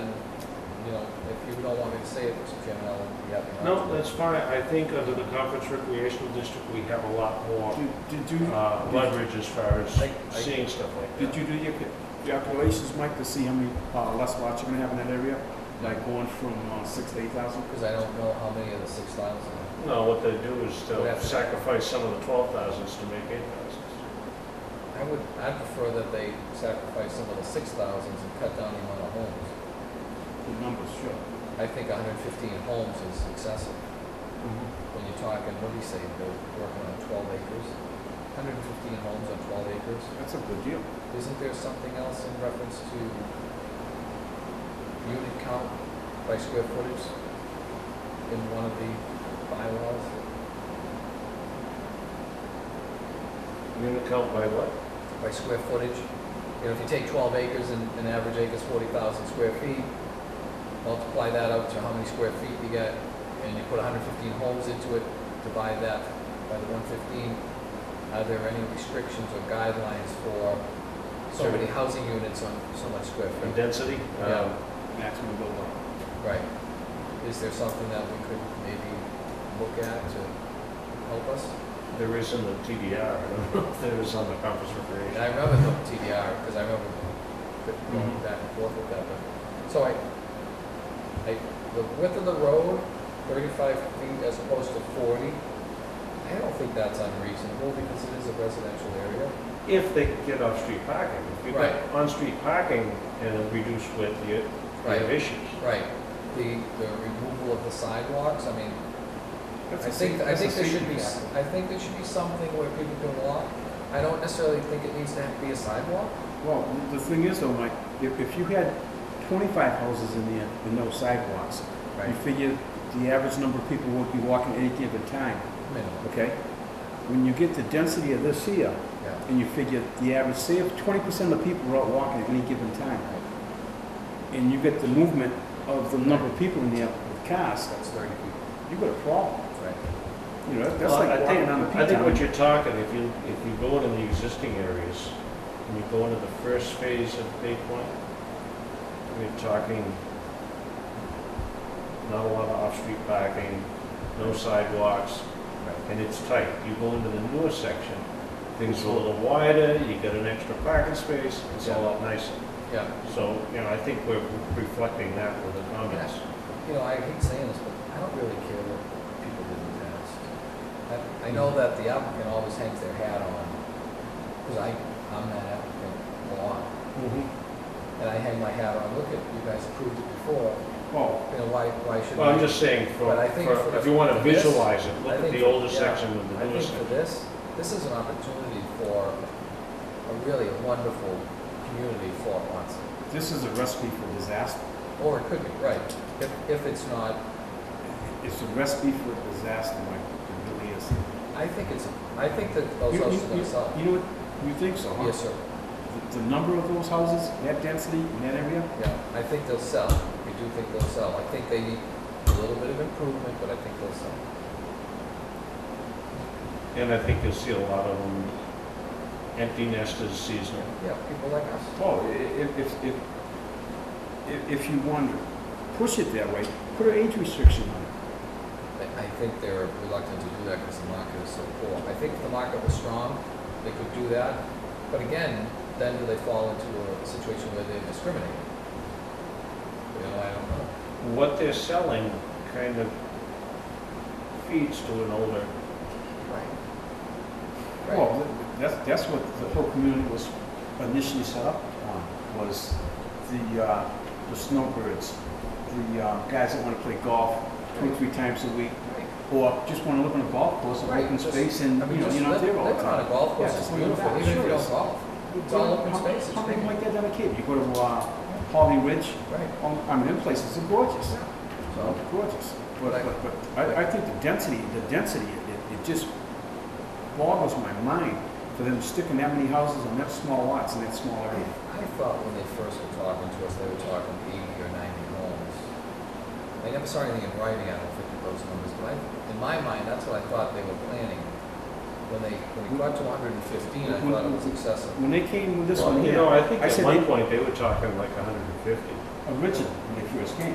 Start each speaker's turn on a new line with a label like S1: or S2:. S1: don't want me to say it, Mr. Chairman, I'll be happy. not
S2: No,
S1: to.
S2: that's fine. I think under the Conference Recreational District, we have a lot more
S3: Did did you,
S2: uh, leverage as far
S1: I-
S2: as
S1: I-
S2: seeing stuff like
S3: did
S2: that.
S3: you do your ca- calculations, Mike, to see how many uh, less lots you're gonna have in that area? Like going from uh, six to eight thousand?
S1: Because I don't know how many of the six thousand.
S2: No, what they do is
S1: We'd
S2: they'll
S1: have to-
S2: sacrifice some of the twelve thousands to make eight thousands.
S1: I would, I prefer that they sacrifice some of the six thousands and cut down the amount of homes.
S3: The numbers, sure.
S1: I think hundred and fifteen homes is excessive. When you're talking, what do you say, they're working on twelve acres? Hundred and fifteen homes on twelve acres?
S3: That's a good deal.
S1: Isn't there something else in reference to unit count by square footage in one of the bylaws?
S2: Unit count by what?
S1: By square footage? You know, if you take twelve acres and an average acre is forty thousand square feet, multiply that out to how many square feet you get, and you put hundred fifteen homes into it, divide that by the one fifteen, are there any restrictions or guidelines for so
S2: Sure.
S1: many housing units on so much square feet?
S2: And Density?
S1: Yeah.
S2: Um,
S3: Maximum build up.
S1: Right. Is there something that we could maybe look at to help us?
S2: There is in the TDR, I don't know if there is on the Conference
S1: And I
S2: Recreation.
S1: remember the TDR, because I remember going
S3: Mm-hmm.
S1: back and forth with that, but, so I, I, the width of the road, thirty-five feet as opposed to forty, I don't think that's unreasonable, because it is a residential area.
S2: If they can get off-street parking. If you get
S1: Right.
S2: on-street parking and a reduced width, you you
S1: Right.
S2: have issues.
S1: Right. The, the removal of the sidewalks, I mean,
S3: That's
S1: I
S3: a
S1: think,
S3: safe-
S1: I
S3: that's a
S1: think there should
S3: safety
S1: be,
S3: factor.
S1: I think there should be something where people can walk. I don't necessarily think it needs to have to be a sidewalk.
S3: Well, the thing is though, Mike, if, if you had twenty-five houses in there with no sidewalks, you figure the average number of people would be walking at any given time,
S1: Minimum,
S3: okay? When you get the density of this here,
S1: yeah.
S3: and you figure the average, say if twenty percent of the people are out walking at any given time, and you get the movement of the number of people in there with cars,
S1: That's thirty people,
S3: you got a problem.
S1: right?
S3: You know, that's
S2: Well, I
S3: like walking
S2: think-
S3: on a
S2: I think what
S3: P-town.
S2: you're talking, if you, if you go into the existing areas, and you go into the first phase of Bay Point, we're talking not a lot of off-street parking, no sidewalks, and it's tight. You go into the newer section, things are a little wider, you get an extra parking space, it's a lot nicer.
S1: Yeah,
S2: So, you know, I think we're reflecting that with the comments.
S1: you know, I hate saying this, but I don't really care what people did in the past. I, I know that the applicant always hangs their hat on, because I, I'm that applicant a lot, and I hang my hat on, look at, you guys approved it before,
S3: Oh,
S1: you know, why, why should we?
S2: Well, I'm just saying, for,
S1: But I think
S2: for-
S1: for-
S2: if you want to
S1: for this,
S2: visualize
S1: I
S2: it, look at
S1: think
S2: the
S1: for-
S2: older
S1: yeah,
S2: section with the
S1: I
S2: newer
S1: think for
S2: section.
S1: this, this is an opportunity for a really wonderful community for Monson.
S3: this is a recipe for disaster.
S1: Or it could be, right, if, if it's not,
S3: It's a recipe for disaster, Mike, it really is.
S1: I think it's, I think that
S2: Oh,
S1: those
S3: You- you-
S1: houses are gonna
S3: you-
S1: sell.
S3: You know what, you think so, huh?
S1: Yes, sir,
S3: The- The number of those houses, that density, in that area,
S1: yeah, I think they'll sell, I do think they'll sell, I think they need a little bit of improvement, but I think they'll sell.
S2: And I think you'll see a lot of them empty nesters seasonal.
S1: Yeah, people like us.
S3: Oh, i- if, if, if, if- if you wonder, push it that way, put an age restriction on it.
S1: I- I think they're reluctant to do that because the market is so poor. I think if the market was strong, they could do that. But again, then do they fall into a situation where they're discriminating? You know, I don't know.
S2: What they're selling kind of feeds to an older,
S1: Right. Right,
S3: Well, th- that's, that's what the whole community was initially set up on, was the, uh, the snowbirds, the, uh, guys that wanna play golf two, or three times a week,
S1: right.
S3: or just wanna live on a golf course, an
S1: Right,
S3: open
S1: just-
S3: space, and,
S1: I
S3: you
S1: mean,
S3: know,
S1: just
S3: you're not
S1: live,
S3: there all the
S1: living on a
S3: time.
S1: golf course is
S3: Yeah, just live in
S1: beautiful,
S3: that,
S1: even if you
S3: sure
S1: don't
S3: is.
S1: golf. It's
S3: You
S1: all
S3: know,
S1: open
S3: how-
S1: space, it's
S3: How come
S1: big.
S3: like that, that a kid, you go to, uh, Holly Ridge,
S1: Right.
S3: um, I mean, them places are gorgeous.
S1: So,
S3: Gorgeous.
S1: But I-
S3: But, but, but I, I think the density, the density, it, it just boggles my mind for them sticking that many houses on that small lots in that small
S1: I
S3: area.
S1: I thought when they first were talking to us, they were talking eighty or ninety homes. I never saw anything in writing out of fifty those numbers, but I, in my mind, that's what I thought they were planning. When they, when we got to hundred and fifteen, I thought it was excessive.
S3: When they came with this
S1: Oh,
S2: Well,
S3: one
S2: you
S3: here,
S2: know, I think
S3: I
S2: at
S3: said
S2: one
S3: they-
S2: point they were talking like hundred and fifty.
S3: originally, when they first came,